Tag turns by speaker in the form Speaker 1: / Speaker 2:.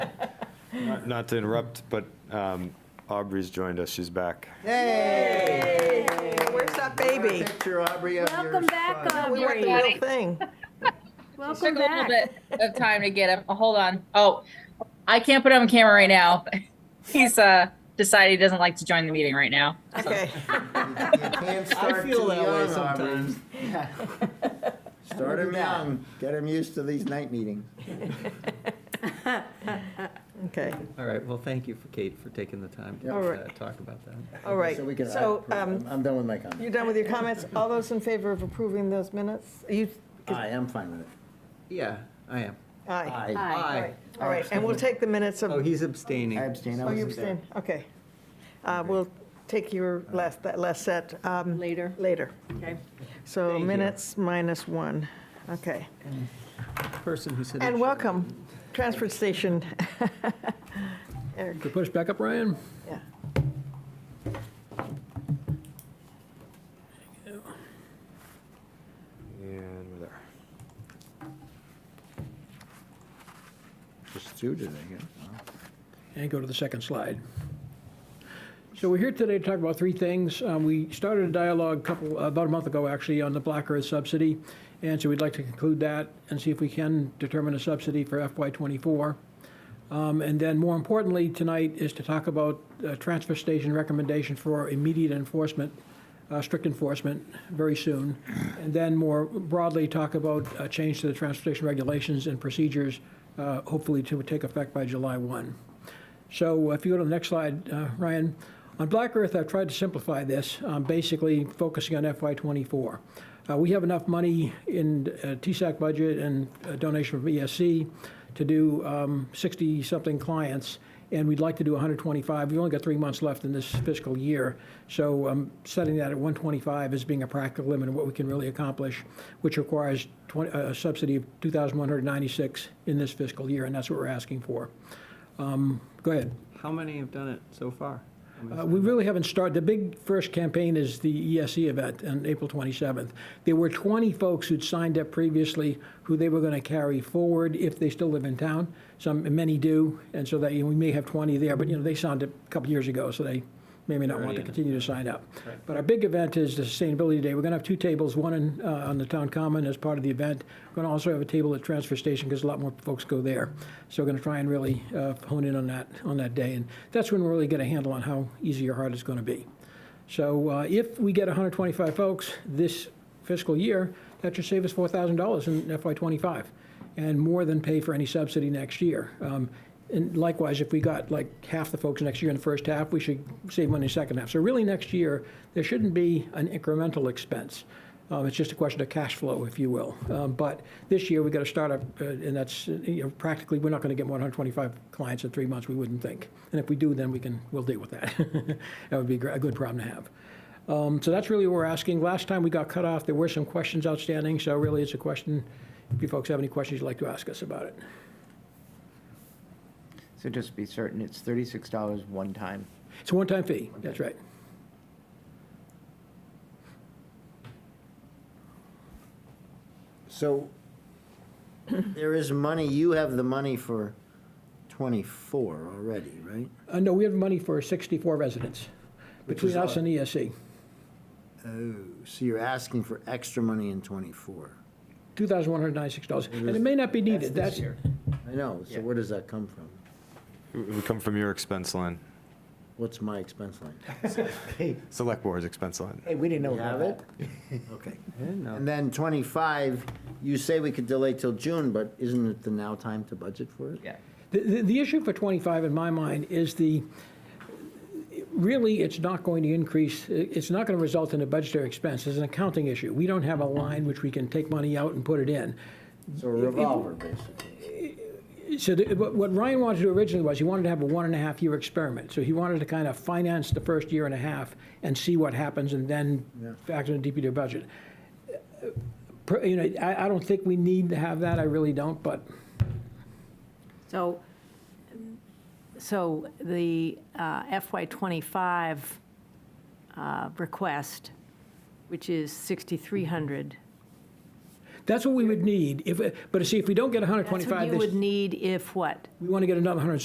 Speaker 1: Not- Not to interrupt, but um, Aubrey's joined us, she's back.
Speaker 2: Hey!
Speaker 3: Where's that baby?
Speaker 2: Picture, Aubrey, of your
Speaker 4: Welcome back,
Speaker 2: son.
Speaker 3: We want the
Speaker 4: Aubrey.
Speaker 3: real thing.
Speaker 4: Welcome
Speaker 5: Took a little
Speaker 4: back.
Speaker 5: bit of time to get him. Oh, Hold on. Oh, I can't put him on camera right now. He's uh decided he doesn't like to join the meeting right now.
Speaker 3: Okay.
Speaker 4: um,
Speaker 2: You can't start too
Speaker 6: feel that way
Speaker 2: young, Aubrey.
Speaker 6: sometimes.
Speaker 2: Start him young, get him used to these night meetings.
Speaker 3: Okay.
Speaker 6: All right, well, thank you, for Kate, for taking the time to
Speaker 2: Yeah.
Speaker 3: All right.
Speaker 6: uh, talk about that.
Speaker 3: All right.
Speaker 2: So we can,
Speaker 3: So,
Speaker 2: I'm
Speaker 3: um,
Speaker 2: I'm done with my comments.
Speaker 3: you're done with your comments? All those in favor of approving those minutes? You,
Speaker 2: Aye, I'm fine with it.
Speaker 6: Yeah, I am.
Speaker 3: aye.
Speaker 2: Aye.
Speaker 6: Aye.
Speaker 3: All right, and we'll take the minutes
Speaker 6: Oh,
Speaker 3: of,
Speaker 6: he's abstaining.
Speaker 2: I abstain, I
Speaker 3: oh, you
Speaker 2: wasn't there.
Speaker 3: abstain, okay. Uh, We'll take your last, that last set um,
Speaker 7: later.
Speaker 3: later.
Speaker 7: Okay.
Speaker 3: So
Speaker 6: Thank you.
Speaker 3: minutes minus one, okay.
Speaker 6: Person who said. it
Speaker 3: And
Speaker 6: should-
Speaker 3: welcome, transfer station. Eric,
Speaker 8: Could push back up, Ryan?
Speaker 3: yeah.
Speaker 1: And we're there.
Speaker 2: Just two today, yeah. Wow.
Speaker 8: And go to the second slide. So we're here today to talk about three things. Um, We started a dialogue a couple, uh, about a month ago, actually, on the Black Earth subsidy, and so we'd like to conclude that and see if we can determine a subsidy for FY '24. Um, And then, more importantly, tonight is to talk about uh transfer station recommendation for immediate enforcement, uh, strict enforcement, very soon. And then, more broadly, talk about a change to the transfer station regulations and procedures, uh, hopefully to take effect by July 1. So uh, if you go to the next slide, uh, Ryan, on Black Earth, I've tried to simplify this, um, basically focusing on FY '24. Uh, We have enough money in uh, TSAC budget and a donation from ESC to do 60-something clients, and we'd like to do 125. We've only got three months left in this fiscal year, so um, setting that at 125 as being a practical limit of what we can really accomplish, which requires 20 a subsidy of 2,196 in this fiscal year, and that's what we're asking for. Go ahead.
Speaker 6: How many have done it so far? I mean,
Speaker 8: Uh, We really haven't started, the big first campaign is the ESE event on April 27th. There were 20 folks who'd signed up previously who they were going to carry forward if they still live in town. Some, many do, and so that, you know, we may have 20 there, but, you know, they signed up a couple years ago, so they may or may not want to
Speaker 6: Already in.
Speaker 8: continue to sign up. But our big event is the Sustainability Day. We're going to have two tables, one in, uh, on the Town Common as part of the event. We're going to also have a table at Transfer Station because a lot more folks go there. So we're going to try and really uh, hone in on that, on that day. And that's when we're really get a handle on how easy or hard it's going to be. So uh, if we get 125 folks this fiscal year, that should save us $4,000 in FY '25 and more than pay for any subsidy next year. Um, And likewise, if we got like half the folks next year in the first half, we should save money in the second half. So really, next year, there shouldn't be an incremental expense. Um, It's just a question of cash flow, if you will. Um, But this year, we got to start up, uh, and that's, uh, you know, practically, we're not going to get more than 125 clients in three months, we wouldn't think. And if we do, then we can, we'll deal with that. That would be gr- a good problem to have. Um, So that's really what we're asking. Last time we got cut off, there were some questions outstanding, so really, it's a question, if you folks have any questions you'd like to ask us about it.
Speaker 9: So just to be certain, it's thirty-six dollars one time.
Speaker 8: It's a one-time fee, that's right.
Speaker 2: So there is money, you have the money for 24 already, right?
Speaker 8: Uh, No, we have money for 64 residents,
Speaker 2: Which is
Speaker 8: between us
Speaker 2: odd.
Speaker 8: and E ESC.
Speaker 2: Oh, so you're asking for extra money in 24.
Speaker 8: $2,196, and it may not be needed. That's,
Speaker 2: I know, so where does that come from?
Speaker 1: It would come from your expense line,
Speaker 2: What's my expense line?
Speaker 9: Hey,
Speaker 1: Select Board's expense line.
Speaker 9: hey, we didn't know
Speaker 2: You
Speaker 9: about
Speaker 2: have
Speaker 9: that.
Speaker 2: it? Okay.
Speaker 6: I didn't know.
Speaker 2: And then 25, you say we could delay till June, but isn't it the now time to budget for it?
Speaker 9: Yeah.
Speaker 8: The, the- the issue for 25 in my mind is the, really, it's not going to increase, it's not going to result in a budgetary expense. It's an accounting issue. We don't have a line which we can take money out and put it in.
Speaker 2: So a revolver, basically.
Speaker 8: So the- what what Ryan wanted to do originally was, he wanted to have a one and a half year experiment. So he wanted to kind of finance the first year and a half and see what happens and then factor in the DPW budget. Uh, Per- You know, I, I don't think we need to have that, I really don't, but
Speaker 7: So, so the uh, FY '25 uh, request, which is 6,300.
Speaker 8: that's what we would need. If, but see, if we don't get
Speaker 7: That's what
Speaker 8: 125
Speaker 7: you would
Speaker 8: this,
Speaker 7: need if what?
Speaker 8: we want to get another 100